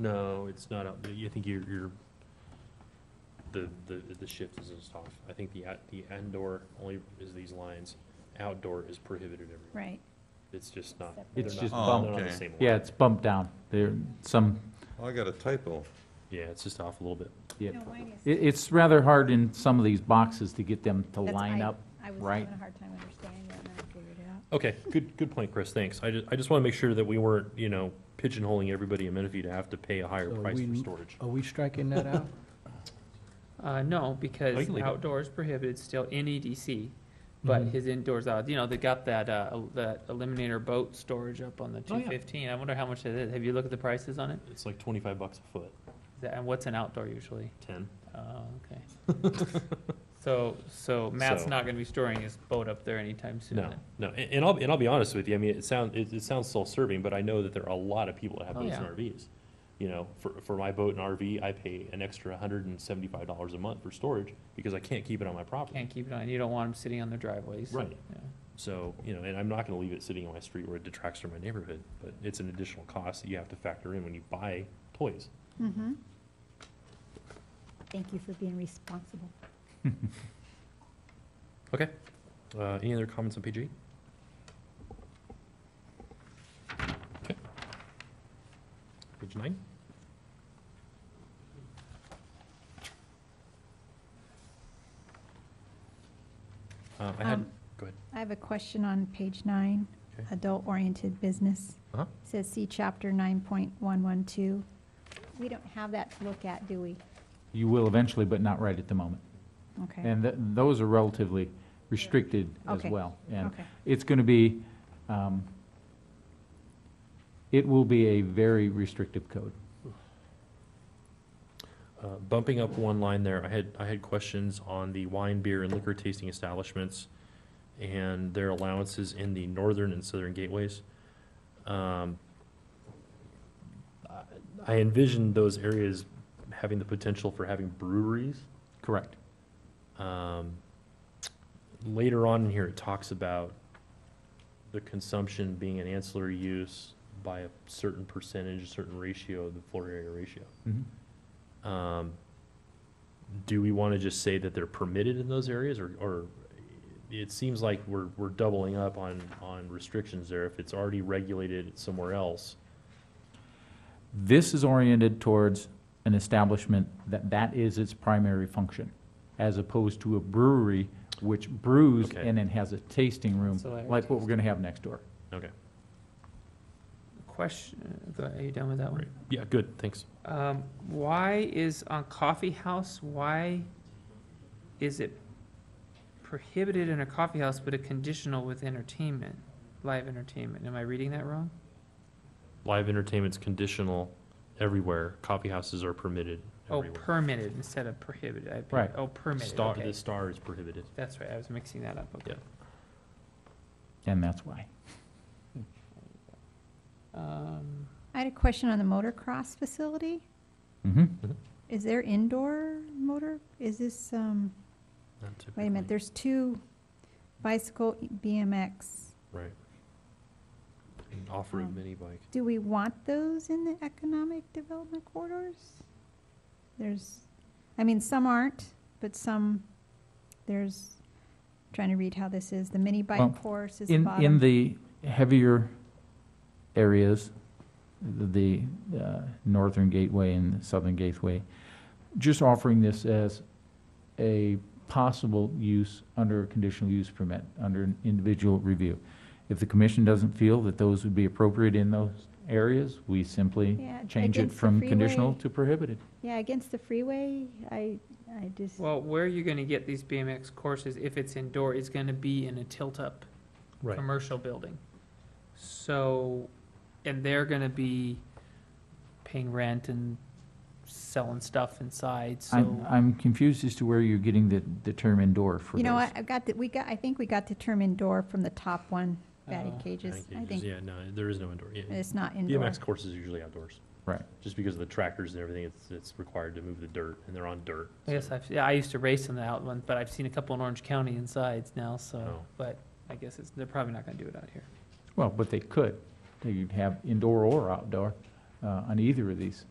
No, it's not out, I think you're, you're, the, the, the shift is just off. I think the, out- the indoor only is these lines, outdoor is prohibited everywhere. Right. It's just not. Separate. they're It's not- just they're bumped. not on the Okay. same line. Yeah, it's bumped down. There, some, I got a typo. Yeah, it's just off a little bit. yeah. No, mine is- It, it's rather hard in some of these boxes to get them to That's- line I- up, I was right? having a hard time understanding that, and I figured it out. Okay, good, good point, Chris, thanks. I just, I just want to make sure that we weren't, you know, pigeonholing everybody in Menifee to have to pay a higher So price for we- storage. Are we striking that out? Uh, no, Oh, you because can leave it. outdoors prohibited still in EDC, but Mm-hmm. Mhm. his indoors out. You know, they got that uh, el- that Eliminator boat storage up on the Oh, yeah. 215. I wonder how much that is. Have you looked at the prices on it? It's like twenty-five bucks a foot, Is that- And what's an outdoor usually? ten. Oh, okay. so so Matt's So- not going to be storing his boat up there anytime soon. No, then. no, and, and I'll, and I'll be honest with you, I mean, it sound, it, it sounds self-serving, but I know that there are a lot of people that have Oh, boats and yeah. RVs. You know, for, for my boat and RV, I pay an extra hundred and seventy-five dollars a month for storage because I can't keep it on my property. Can't keep it on. You don't want him sitting on their driveways. Right. Yeah. So, you know, and I'm not gonna leave it sitting on my street where it detracts from my neighborhood, but it's an additional cost that you have to factor in when you buy toys. Mm-hmm. Thank you for being responsible. Okay, uh, any other comments on page eight? Okay. Page nine? Uh, I had, Um, go ahead. I have a question on page nine, Okay. adult-oriented business. Uh-huh. Says see chapter nine point one one two. We don't have that to look at, do we? You will eventually, but not right at the moment. Okay, And th- those are relatively restricted as Okay. well. And okay. it's going to be, um, it will be a very restrictive code. Uh, bumping up one line there, I had, I had questions on the wine, beer, and liquor tasting establishments and their allowances in the northern and southern gateways. Um, I- I envisioned those areas having the potential for having breweries. Correct. Um, Later on in here, it talks about the consumption being an ancillary use by a certain percentage, a certain ratio, the floor area ratio. Mhm. Um, Do we want to just say that they're permitted in those areas, or, or it seems like we're, we're doubling up on, on restrictions there if it's already regulated somewhere else? This is oriented towards an establishment that that is its primary function, as opposed to a brewery which brews Okay. and then has a tasting room, So like- like what we're going to have next door. Okay, Question. Go ahead. Are you done with that one? great. Yeah, good, thanks. Um, why is on coffee house, why is it prohibited in a coffee house but a conditional with entertainment, live entertainment? Am I reading that wrong? Live entertainment's conditional everywhere. Coffee houses are permitted Oh, everywhere. permitted instead of prohibited. I- Right. Oh, permitted, Star, okay. the star is prohibited. That's right, I was mixing that up, okay. And that's why. Um, I had a question on the motocross facility. Mhm. Is there indoor motor? Is this, um, Not wait a minute, typically. there's two bicycle E BMX. Right. An Off-road Um, mini bike. Do we want those in the economic development corridors? There's, I mean, some aren't, but some, there's, trying to read how this is, the mini Well, bike course is the In, in bottom. the heavier areas, the uh, northern gateway and southern gateway, just offering this as a possible use under a conditional use permit, under an individual review. If the commission doesn't feel that those would be appropriate in those areas, we simply Yeah, change it against the from conditional freeway- to prohibited. Yeah, against the freeway, I, I just, Well, where are you gonna get these BMX courses if it's indoor? It's gonna be in a tilt-up commercial building. So, and they're gonna be paying rent and selling stuff inside, I'm, so. I'm confused as to where you're getting the, the term indoor for you know, those. what, I've got, the- we got, I think we got the term indoor from the top one, batting Uh, cages. I think Oh, Yeah, no, there is no indoor. yeah. it's not indoor. BMX courses are usually outdoors. Right. Just because of the tractors and everything, it's, it's required to move the dirt, and they're on dirt. I guess so- I've, yeah, I used to race in the outland, but I've seen a couple in Orange County insides now, so, Oh. but I guess it's, they're probably not gonna do it out here. Well, but they could. They could have indoor or outdoor uh, on either of these.